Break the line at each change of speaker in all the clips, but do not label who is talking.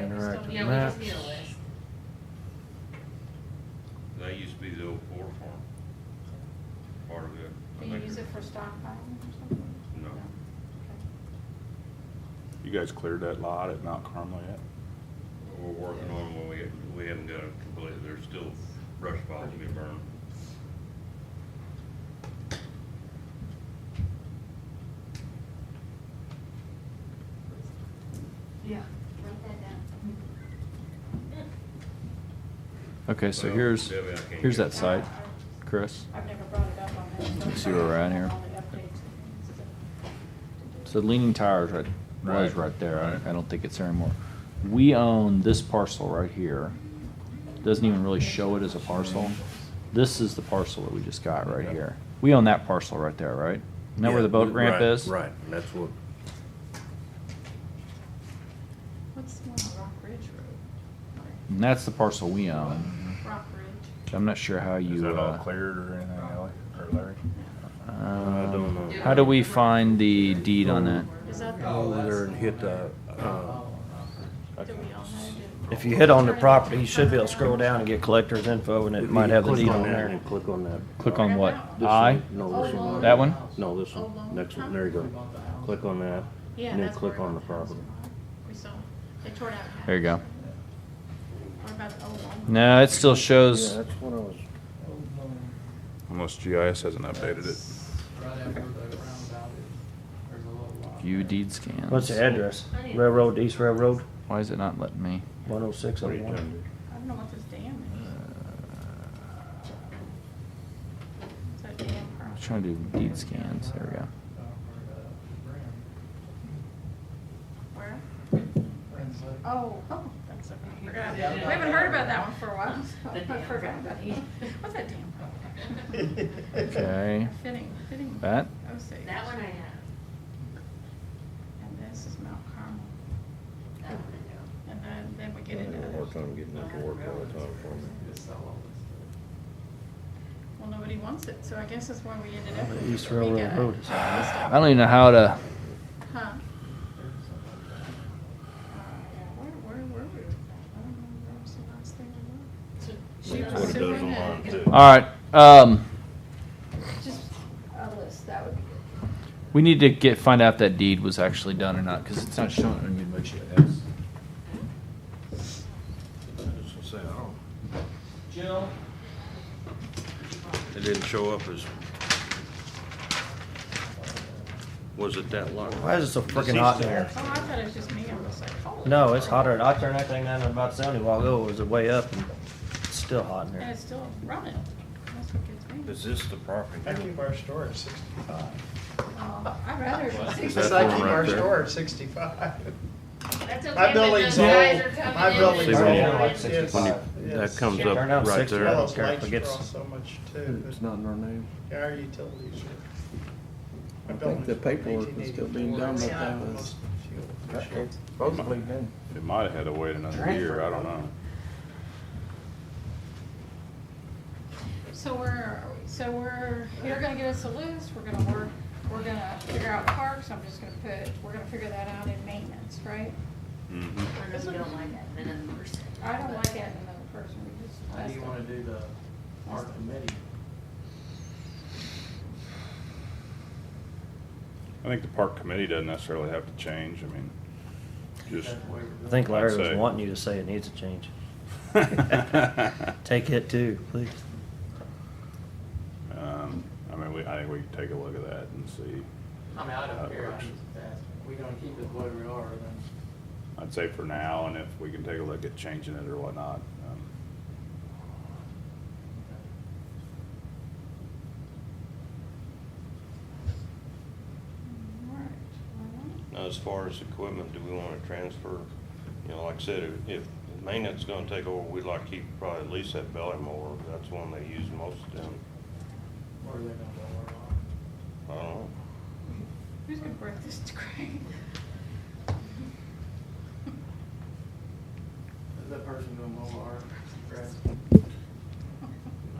Yeah, we just need a
Maps.
list.
That used to be the old poor farm. Part of it. I
Do you
think
use it for stockpiling or something?
No.
Okay.
You guys cleared that lot at Mount Carmel yet?
We're working on, well, we, we haven't got it complete, there's still brush piles to be burned.
Yeah.
Write that down.
Okay, so
Well,
here's,
Debbie, I can't
here's
get-
that site, Chris.
I've never brought it up on that.
Let's see where we're at here.
All the updates.
So leaning tires right, was
Right.
right there. I,
Right.
I don't think it's there anymore. We own this parcel right here. Doesn't even really show it as a parcel. This is the parcel that we just got right
Yeah.
here. We own that parcel right there, right? Isn't that where the
Yeah,
boat ramp
right,
is?
Right, and that's what,
What's the one on Rock Ridge Road?
And that's the parcel we own.
Rock Ridge.
I'm not sure how you.
Is that all
uh,
cleared or anything, Ally, or Larry?
um,
don't know.
How do we find the deed on that?
Is that the?
go over there and hit the, uh,
Do we all have it?
If you hit on the property, you should be able to scroll down and get collector's info, and it might have the
click
deed on
that
there.
And click on that.
Click on what?
This
I?
one. No, this one.
That one?
No, this one, next one, there you go. Click on that,
Yeah,
and then
that's where
click on the
the house
property.
was. We saw, they tore it out. half.
There you go.
Or about the old one.
No, it still
Yeah,
shows,
that's what I was,
Unless GIS hasn't updated it.
Right after the roundabout, is- there's a little lot.
view
there.
deed scans.
What's the address? Railroad, East Railroad,
Why is it not letting me? Uh,
one oh six oh
what are you
one.
doing?
I don't know what this dam is. Is that dam
I was
property?
trying to do deed scans. There we go.
Down where the
Where?
brand- brand's like-
Oh, oh, that's, okay. I forgot. We haven't heard about that one for a while. so
The
I
dam
forgot about it.
property.
What's that dam?
Okay.
Fitting, fitting.
That?
Oh, six.
That one I have.
And this is Mount Carmel.
That one I know.
And then, then we get into
Having a hard
it.
time getting it to work all the time for me.
Just sell all this stuff.
Well, nobody wants it, so I guess that's why we ended up. with
East
it. We
Railroad
got it.
Road is-
I don't even know how to.
Huh?
There's something like that.
Uh, Where, where were we? with that? I don't know. That was the last thing I
That's
looked. She
what
was
it does online,
superintendent.
too.
All right. Um,
Just a list, that would be good.
we need to get find out if that deed was actually done or not because it's not showing on your GIS.
I was gonna say, I don't-
Jill,
It didn't show up as. Was it that long?
Why is it so frickin' hot in here?
Oh, I thought it was just me. I was like, holy.
No, it's
crap.
hotter. I turned that thing down about seventy while ago. It was way up and it's still hot in
And
here.
it's still running. That's what gets me.
Is this the property?
I keep our store at sixty-five.
Oh, I'd rather.
I
Is
said
that
I
one
keep
right
our
there?
store at sixty-five.
That's okay,
My
but
building's
those guys
old.
are coming
My
in
building's
See,
and-
when you-
old.
like
It's-
65.
when you-
it's-
That comes
Yeah.
up
Turn down
right
60.
there.
I
Well,
don't
those
care if
lights
it gets-
draw so much too,
It's
but
not in our name.
our utilities are.
I think the paperwork was still being done, but that was- Supposedly been.
It might have had to wait another year, I don't know.
So we're, so we're, you're gonna get us a list, we're gonna work, we're gonna figure out parks, I'm just gonna put, we're gonna figure that out in maintenance, right?
Mhm.
I know we don't like that, then in person.
I don't like adding another person, we just.
How do you wanna do the art committee?
I think the park committee doesn't necessarily have to change, I mean, just.
That way we're
I think Larry
I'd say-
was wanting you to say it needs a change. Take it too, please.
Um, I mean, we, I think we can take a look at that and see. Uh,
I mean, I
That
don't care, I'm
works.
just asking, we gonna keep it the way we are, then
I'd say for now, and if we can take a look at changing it or whatnot. um,
Alright, well,
Now, as far as equipment, do we wanna transfer, you know, like I said, if- if maintenance is gonna take over, we'd like to keep probably at least that belly mower, that's one they use most of them.
where are they gonna go, where are?
I don't know.
Who's gonna break this to Craig?
Is that person doing mobile art? Grass?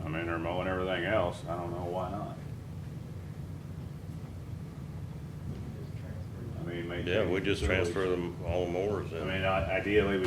I mean, they're mowing everything else, I don't know why not. I mean, maybe.
Yeah, we just transfer them, all the mowers
I
in.
mean, I- ideally, we